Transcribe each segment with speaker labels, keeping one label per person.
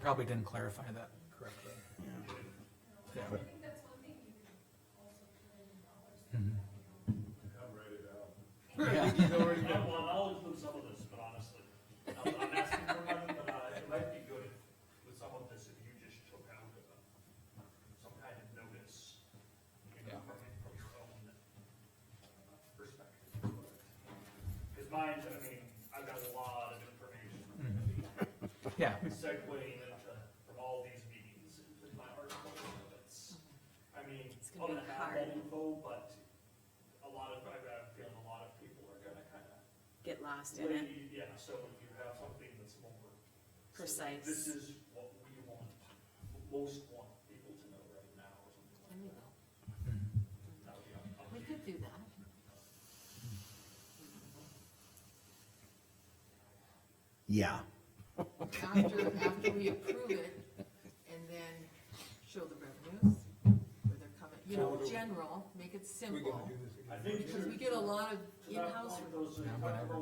Speaker 1: probably didn't clarify that correctly. Yeah. Yeah.
Speaker 2: Yeah, well, I'll include some of this, but honestly, I'm I'm asking for money, but uh, it might be good with some of this if you just took out uh, some kind of notice. you know,
Speaker 1: Yeah.
Speaker 2: From from your own perspective. Because mine, I mean, I've got a lot of information
Speaker 1: Mm-hmm. Yeah,
Speaker 2: segueing into, from all these meetings into my article. It's, I mean,
Speaker 3: It's
Speaker 2: I'm
Speaker 3: gonna
Speaker 2: gonna
Speaker 3: be hard.
Speaker 2: have that info, but a lot of, I've got a feeling a lot of people are gonna kind of
Speaker 3: get lost in it.
Speaker 2: Lee, Yeah, so if you have something that's more.
Speaker 3: Precise.
Speaker 2: This is what we want, most want people to know right now, or something like that. That would be up- up to
Speaker 4: We
Speaker 2: you.
Speaker 4: could do that.
Speaker 5: Yeah.
Speaker 4: After, after we approve it, and then show the revenues, where they're coming, you know, general, make it simple.
Speaker 2: I think
Speaker 4: Because
Speaker 2: to.
Speaker 4: we get a lot of
Speaker 2: to that
Speaker 4: in-house,
Speaker 2: point,
Speaker 4: re-
Speaker 2: those are-
Speaker 1: Yeah, whatever.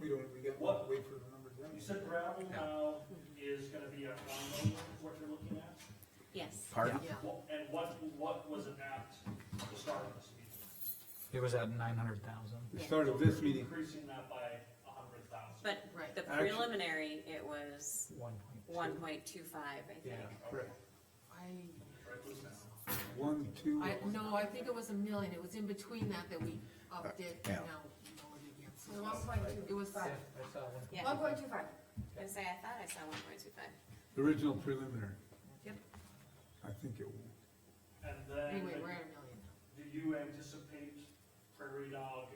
Speaker 6: We don't, we got,
Speaker 2: What?
Speaker 6: wait for the numbers then.
Speaker 2: You said gravel
Speaker 1: Yeah.
Speaker 2: now is gonna be a five million, is what you're looking at?
Speaker 3: Yes.
Speaker 5: Pardon?
Speaker 4: yeah,
Speaker 2: What- And what, what was it at the start of this meeting?
Speaker 1: it was at nine hundred thousand.
Speaker 6: The start of this
Speaker 2: So
Speaker 6: meeting,
Speaker 2: Increasing that by a hundred thousand.
Speaker 3: But
Speaker 4: Right.
Speaker 3: the
Speaker 6: Actually-
Speaker 3: preliminary, it was
Speaker 1: One
Speaker 3: one
Speaker 1: point
Speaker 3: point two five, I
Speaker 1: two.
Speaker 3: think.
Speaker 6: correct,
Speaker 4: I,
Speaker 2: Right, was now.
Speaker 6: one, two,
Speaker 4: I, no, I think it was a million, it was in between that that we upped it, and
Speaker 5: Yeah.
Speaker 4: now we know it again. So
Speaker 7: One point
Speaker 4: It
Speaker 7: two
Speaker 4: was,
Speaker 7: five.
Speaker 3: Yeah, I
Speaker 7: One point two five.
Speaker 3: was gonna say, I thought I saw one point two five.
Speaker 6: the original preliminary.
Speaker 4: Yep.
Speaker 6: I think it,
Speaker 2: And then.
Speaker 4: anyway, we're at a million now.
Speaker 2: Do you anticipate Prairie Dog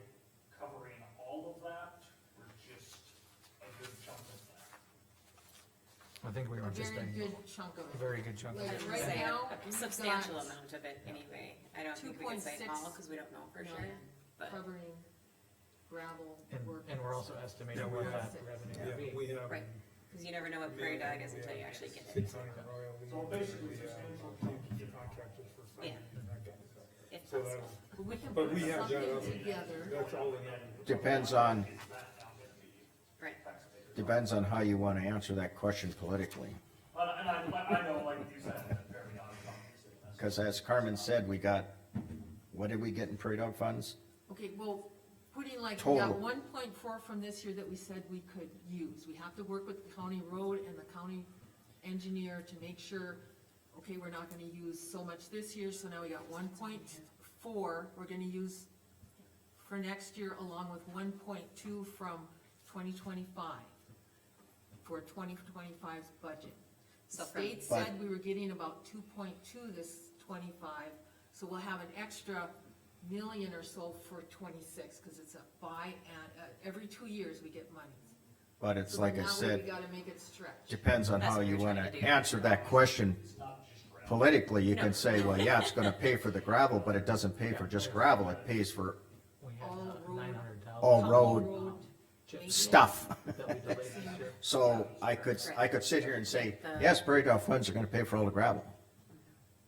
Speaker 2: covering all of that, or just a good chunk of that?
Speaker 1: I think we
Speaker 4: A
Speaker 1: were just
Speaker 4: very
Speaker 1: a
Speaker 4: good chunk of it.
Speaker 1: very good chunk of
Speaker 4: Like,
Speaker 1: it.
Speaker 4: right
Speaker 1: Yeah.
Speaker 4: now,
Speaker 3: A
Speaker 4: we've
Speaker 3: substantial
Speaker 4: got
Speaker 3: amount of it anyway. I don't think we can say
Speaker 4: 2.6
Speaker 3: all, cause we don't know for sure,
Speaker 4: million
Speaker 3: but
Speaker 4: Covering gravel
Speaker 1: And,
Speaker 4: work.
Speaker 1: and we're also estimating
Speaker 6: Yeah, we
Speaker 1: what
Speaker 6: have-
Speaker 1: that
Speaker 6: yeah,
Speaker 1: revenue would be.
Speaker 6: we have.
Speaker 3: Right. cause you never know what prairie dog is until you actually get it.
Speaker 6: Six hundred Royal. we-
Speaker 2: So basically,
Speaker 6: we have
Speaker 2: substantial.
Speaker 6: Contractors for.
Speaker 3: Yeah.
Speaker 6: funding and that kind of stuff.
Speaker 3: If
Speaker 6: So
Speaker 4: uh,
Speaker 3: possible.
Speaker 6: that's,
Speaker 4: But we can
Speaker 6: But
Speaker 4: put
Speaker 6: we have that
Speaker 4: something
Speaker 6: other-
Speaker 4: together,
Speaker 6: that's all in it.
Speaker 5: Depends on,
Speaker 2: Is that now gonna be
Speaker 3: Right.
Speaker 2: taxpayer?
Speaker 5: depends on how you wanna answer that question politically.
Speaker 2: But, and I, I know, like you said, that Prairie Dog is obviously. a mess.
Speaker 5: Cause as Carmen said, we got, what did we get in prairie dog funds?
Speaker 4: okay, well, putting like, we got
Speaker 5: Total.
Speaker 4: one point four from this year that we said we could use, we have to work with the county road and the county engineer to make sure, okay, we're not gonna use so much this year, so now we got one point four, we're gonna use for next year, along with one point two from twenty twenty-five, for 2025's budget. The
Speaker 3: So from-
Speaker 4: state said we were getting about two point two this twenty-five, so we'll have an extra million or so for twenty-six, cause it's a buy and, uh, every two years we get money.
Speaker 5: But it's like I
Speaker 4: We
Speaker 5: said,
Speaker 4: gotta make it stretch.
Speaker 5: depends on
Speaker 3: That's
Speaker 5: how
Speaker 3: what
Speaker 5: you
Speaker 3: you're
Speaker 5: wanna
Speaker 3: trying to do.
Speaker 5: answer that question
Speaker 2: It's not just gravel.
Speaker 5: politically. You
Speaker 3: No.
Speaker 5: can say, well, yeah, it's gonna pay for the gravel, but it doesn't pay for just gravel. It pays for
Speaker 1: We had
Speaker 4: All road-
Speaker 1: nine hundred thousand.
Speaker 5: all road
Speaker 4: Road
Speaker 5: stuff.
Speaker 1: That we delayed this year.
Speaker 5: So I could, I could sit here and say, yes, prairie dog funds are gonna pay for all the gravel.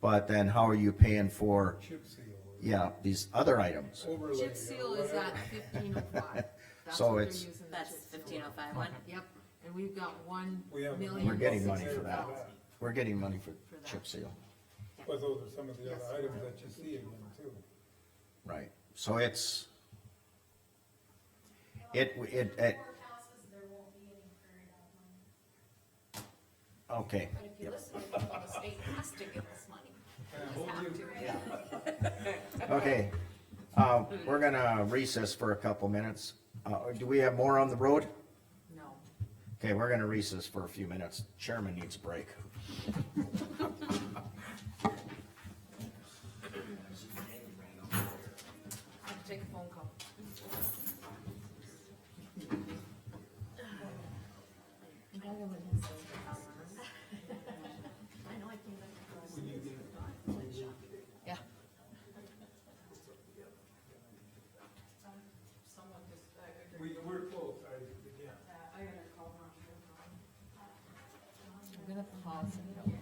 Speaker 5: But then how are you paying for,
Speaker 6: Chip seal. or
Speaker 5: yeah, these other items?
Speaker 6: Overlay. or
Speaker 4: Chip seal is
Speaker 6: whatever.
Speaker 4: at fifteen oh five. That's
Speaker 5: So
Speaker 4: what they're
Speaker 5: it's-
Speaker 4: using the
Speaker 3: That's
Speaker 4: chip seal
Speaker 3: fifteen oh
Speaker 4: on.
Speaker 3: five one.
Speaker 4: Yep, and we've got one
Speaker 6: We have-
Speaker 4: million.
Speaker 5: We're getting money for that.
Speaker 4: $600,000.
Speaker 5: We're getting money for chip seal,
Speaker 6: But those are some of the
Speaker 4: Yes.
Speaker 6: other items that you see in them too.
Speaker 5: right? So it's, it, it,
Speaker 8: Courthouses,
Speaker 5: it,
Speaker 8: there won't be any prairie dog money.
Speaker 5: okay,
Speaker 7: But if you listen, to people, the state has to give us money. They just have to.
Speaker 5: okay. Uh, we're gonna recess for a couple minutes. Uh, do we have more on the road?
Speaker 4: No.
Speaker 5: Okay, we're gonna recess for a few minutes. Chairman needs a break.
Speaker 4: I have to take a phone call.
Speaker 7: No woman has saved her house. I know I came back across.
Speaker 4: Yeah.
Speaker 6: We, we're close, I, yeah.
Speaker 4: I'm gonna pause and.